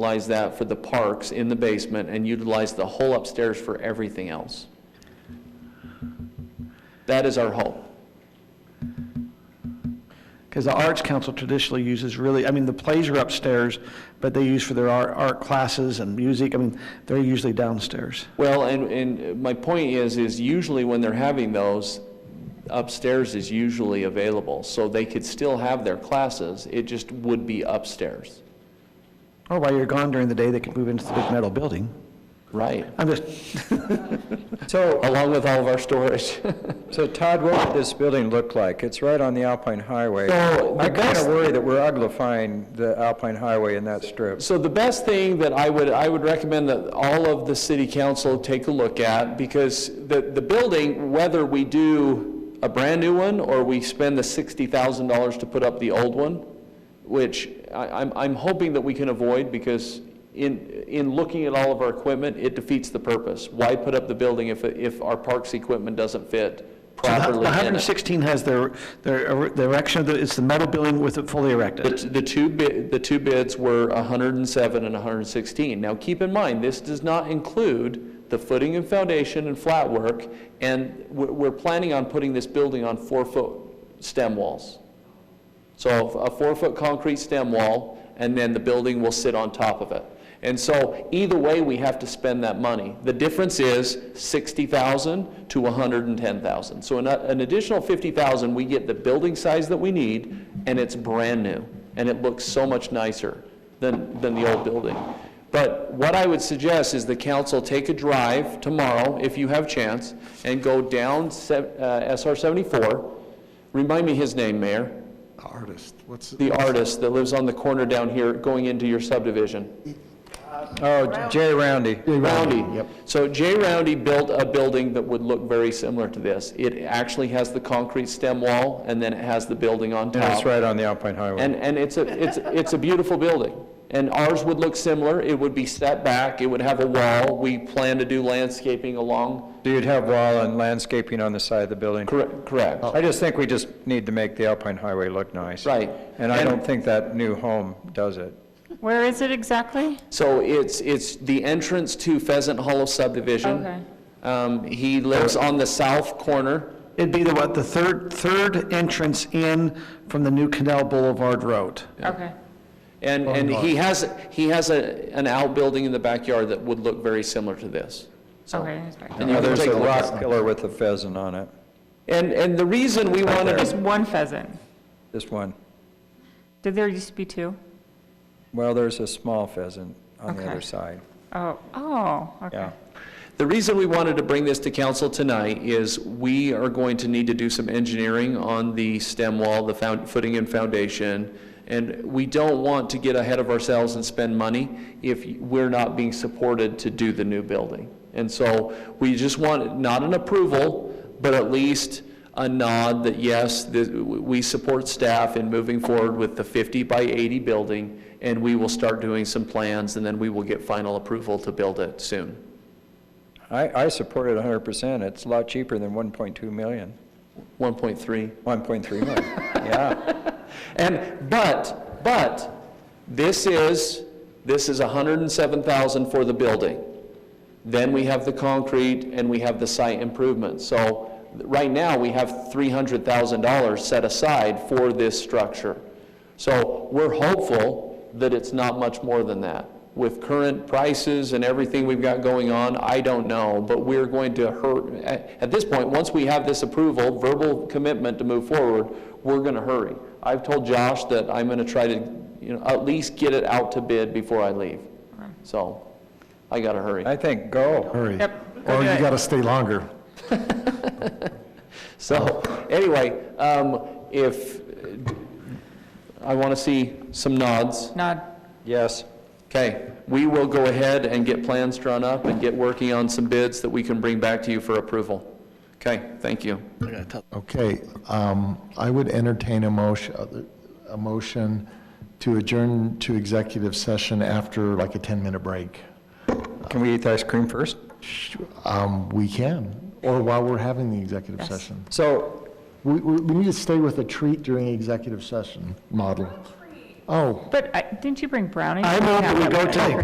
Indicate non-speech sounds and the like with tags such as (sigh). utilize that for the parks in the basement and utilize the whole upstairs for everything else. That is our hope. Because the Arts Council traditionally uses really, I mean, the plays are upstairs, but they use for their art, art classes and music, I mean, they're usually downstairs. Well, and, and my point is, is usually when they're having those, upstairs is usually available. So they could still have their classes, it just would be upstairs. Or Oh, while you're gone during the day, they can move into the big metal building. Right. I'm just, So, Along with all of our storage. so Todd, what would this building look like? It's right on the Alpine Highway. (laughs) So, the I kind best- of worry that we're uglifying the Alpine Highway in that strip. So the best thing that I would, I would recommend that all of the city council take a look at, because the, the building, whether we do a brand-new one, or we spend the $60,000 to put up the old one, which I, I'm, I'm hoping that we can avoid, because in, in looking at all of our equipment, it defeats the purpose. Why put up the building if, if our parks equipment doesn't fit properly in it? 116 has their, their the erection, of the- it's the metal building with it fully The, erected. the two bid, the two bids were 107 and 116. Now, keep in mind, this does not include the footing and foundation and flat work, and we're, we're planning on putting this building on four-foot stem walls. So a four-foot concrete stem wall, and then the building will sit on top of it. And so either way, we have to spend that money. The difference is 60,000 to 110,000. So an an additional 50,000, we get the building size that we need, and it's brand new, and it looks so much nicer than, than the old building. But what I would suggest is the council take a drive tomorrow, if you have chance, and go down se- uh, SR 74. Remind me his name, Mayor Artist, what's, the artist that lives on the corner down here going into your subdivision. Oh, Jay Roundy. Roundy. So Jay Roundy built a building that would look very similar to this. It actually has the concrete stem wall, and then it has the building on top. That's right on the Alpine And, Highway. and it's a, it's, it's a beautiful building. And ours would look similar. It would be set back, it would have a wall. We plan to do landscaping along. So you'd have wall and landscaping on the side of the building. Correct, correct. I just think we just need to make the Alpine Highway look nice. Right. And I And- don't think that new home does it. Where is it exactly? So it's, it's the entrance to Pheasant Hollow subdivision. Okay. Um, He lives on the south corner. It'd be the, what, the third, third entrance in from the new Canal Boulevard Road. Okay. And, and he has, he has a, an outbuilding in the backyard that would look very similar to this. Okay. it's back. And you Now, can There's take a a look at rock pillar with a pheasant on it, And, and the reason we wanted, There's to- one pheasant. this one. Did there used to be two? Well, there's a small pheasant on the Okay. other side, Oh, oh, okay. yeah. the reason we wanted to bring this to council tonight is we are going to need to do some engineering on the stem wall, the found, footing and foundation. And we don't want to get ahead of ourselves and spend money if we're not being supported to do the new building. And so we just want, not an approval, but at least a nod that yes, th- we support staff in moving forward with the 50 by 80 building, and we will start doing some plans, and then we will get final approval to build it soon. I, I support it hundred percent, it's a lot cheaper than one point two million. 1.3. One point three million. yeah. And, but, but, this is, this is 107,000 for the building. Then we have the concrete and we have the site improvement. So right now, we have $300,000 set aside for this structure. So we're hopeful that it's not much more than that. With current prices and everything we've got going on, I don't know, but we're going to hurt, at at this point, once we have this approval, verbal commitment to move forward, we're going to hurry. I've told Josh that I'm going to try to, you know, at least get it out to bid before I leave. So I got to hurry. I think, go. hurry. Yep, go Or do you it. gotta stay longer. So, anyway, um, if, I want to see some nods. Nod. Yes. Okay, we will go ahead and get plans drawn up and get working on some bids that we can bring back to you for approval. Okay, thank you. Okay, um, I would entertain a motion, a motion to adjourn to executive session after like a 10-minute break. Can we eat the ice cream first? Um, We can, or while we're having the executive session. So, We, we we need to stay with a treat during executive session model. Oh, But I- didn't you bring brownies? I know, but we go to-